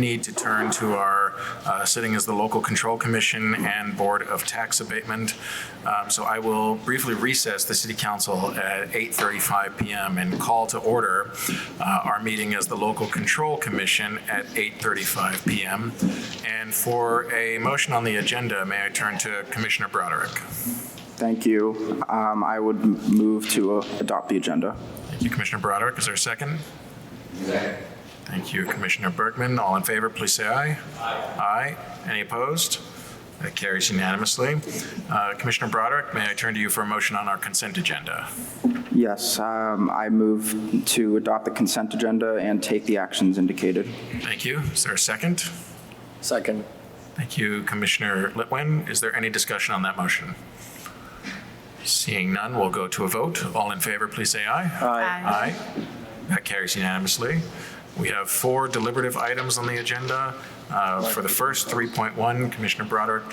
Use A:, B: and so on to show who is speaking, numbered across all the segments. A: need to turn to our uh, sitting as the Local Control Commission and Board of Tax Abatement. Um, So I will briefly recess the City Council at 8:35 PM and call to order uh, our meeting as the Local Control Commission at 8:35 PM. And for a motion on the agenda, may I turn to Commissioner Broderick?
B: Thank you. Um, I would m- move to uh, adopt the agenda.
A: Thank you, Commissioner Broderick. Is there a second? Thank you, Commissioner Bergman. All in favor, please say aye. Aye. Aye. Any opposed? That carries unanimously. Uh, Commissioner Broderick, may I turn to you for a motion on our consent agenda?
B: Yes, um, I move to adopt the consent agenda and take the actions indicated.
A: Thank you. Is there a second?
C: Second.
A: Thank you, Commissioner Litwin. Is there any discussion on that motion? Seeing none, we'll go to a vote. All in favor, please say aye. Aye. Aye. That carries unanimously. We have four deliberative items on the agenda. Uh, For the first, 3.1, Commissioner Broderick,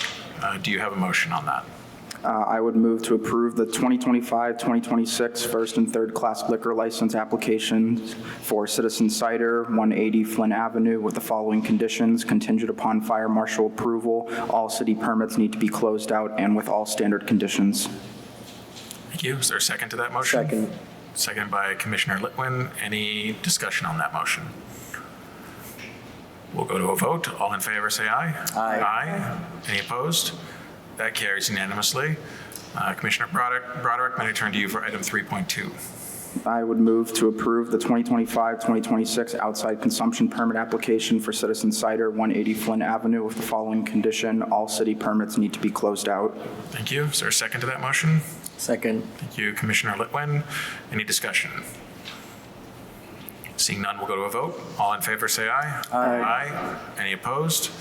A: uh, do you have a motion on that?
B: Uh, I would move to approve the 2025-2026 first and third class liquor license applications for Citizen Cider, 180 Flynn Avenue, with the following conditions contingent upon fire marshal approval. All city permits need to be closed out and with all standard conditions.
A: Thank you. Is there a second to that motion?
C: Second.
A: Second by Commissioner Litwin. Any discussion on that motion? We'll go to a vote. All in favor, say aye.
C: Aye.
A: Aye. Any opposed? That carries unanimously. Uh, Commissioner Broderick, Broderick, may I turn to you for item 3.2?
B: I would move to approve the 2025-2026 outside consumption permit application for Citizen Cider, 180 Flynn Avenue, with the following condition, all city permits need to be closed out.
A: Thank you. Is there a second to that motion?
C: Second.
A: Thank you, Commissioner Litwin. Any discussion? Seeing none, we'll go to a vote. All in favor, say aye. Aye. Any opposed?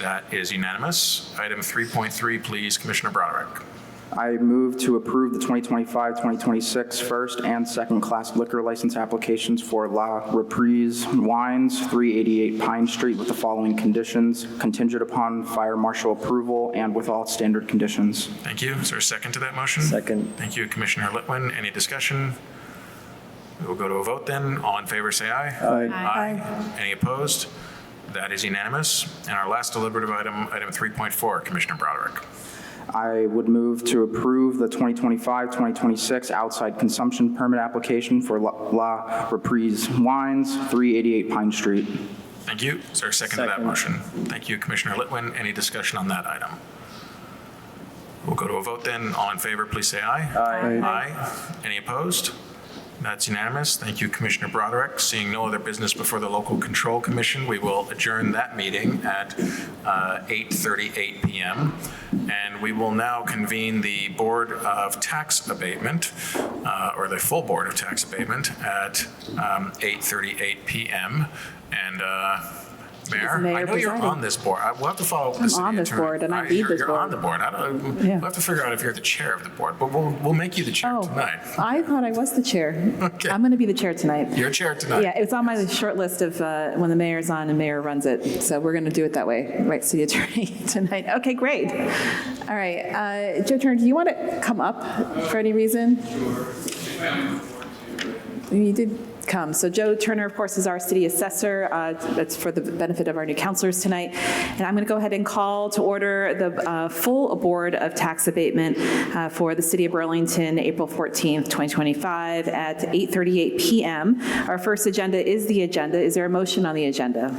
A: That is unanimous. Item 3.3, please, Commissioner Broderick.
B: I move to approve the 2025-2026 first and second class liquor license applications for La Reprise Wines, 388 Pine Street, with the following conditions, contingent upon fire marshal approval and with all standard conditions.
A: Thank you. Is there a second to that motion?
C: Second.
A: Thank you, Commissioner Litwin. Any discussion? We will go to a vote then. All in favor, say aye.
C: Aye.
A: Aye. Any opposed? That is unanimous. And our last deliberative item, item 3.4, Commissioner Broderick.
B: I would move to approve the 2025-2026 outside consumption permit application for La- La Reprise Wines, 388 Pine Street.
A: Thank you. Is there a second to that
C: Second.
A: motion? Thank you, Commissioner Litwin. Any discussion on that item? We'll go to a vote then. All in favor, please say aye. Aye. Aye. Any opposed? That's unanimous. Thank you, Commissioner Broderick. Seeing no other business before the Local Control Commission, we will adjourn that meeting at uh, 8:38 PM. And we will now convene the Board of Tax Abatement, uh, or the full Board of Tax Abatement, at um, 8:38 PM. And uh, Mayor,
D: Mayor
A: I know you're
D: presiding.
A: on this board. I- We'll have to follow up with
D: I'm
A: the city
D: on this
A: attorney.
D: board, and I
A: Right,
D: lead
A: you're-
D: this
A: You're on
D: board.
A: the board. I don't, we'll
D: Yeah.
A: have to figure out if you're the chair of the board, but we'll, we'll make you the chair
D: Oh,
A: tonight.
D: I thought I was the chair.
A: Okay.
D: I'm going to be the chair tonight.
A: You're chair
D: Yeah,
A: tonight.
D: it's on my short list of uh, when the mayor's on and mayor runs it. So we're going to do it that way, right, city attorney tonight. Okay, great. All right, uh, Joe Turner, do you want to come up for any reason? You did come. So Joe Turner, of course, is our city assessor. Uh, That's for the benefit of our new counselors tonight. And I'm going to go ahead and call to order the uh, full Board of Tax Abatement uh, for the City of Burlington, April 14th, 2025, at 8:38 PM. Our first agenda is the agenda. Is there a motion on the agenda?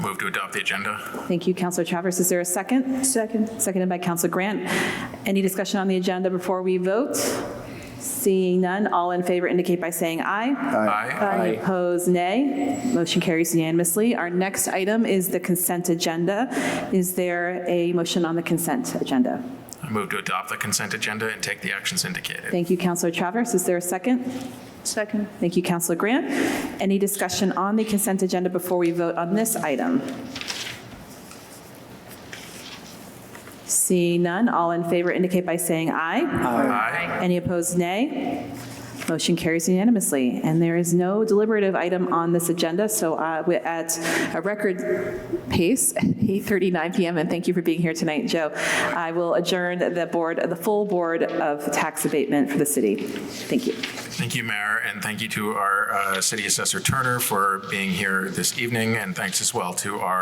A: Move to adopt the agenda.
D: Thank you, Counselor Travers. Is there a second? Second. Seconded by Counselor Grant. Any discussion on the agenda before we vote? Seeing none, all in favor indicate by saying aye.
A: Aye.
D: Any opposed, nay? Motion carries unanimously. Our next item is the consent agenda. Is there a motion on the consent agenda?
A: I move to adopt the consent agenda and take the actions indicated.
D: Thank you, Counselor Travers. Is there a second? Second. Thank you, Counselor Grant. Any discussion on the consent agenda before we vote on this item? See none, all in favor indicate by saying aye.
A: Aye.
D: Any opposed, nay? Motion carries unanimously, and there is no deliberative item on this agenda, so uh, we're at a record pace, 8:39 PM, and thank you for being here tonight, Joe. I will adjourn the board, the full Board of Tax Abatement for the city. Thank you.
A: Thank you, Mayor, and thank you to our uh, City Assessor Turner for being here this evening, and thanks as well to our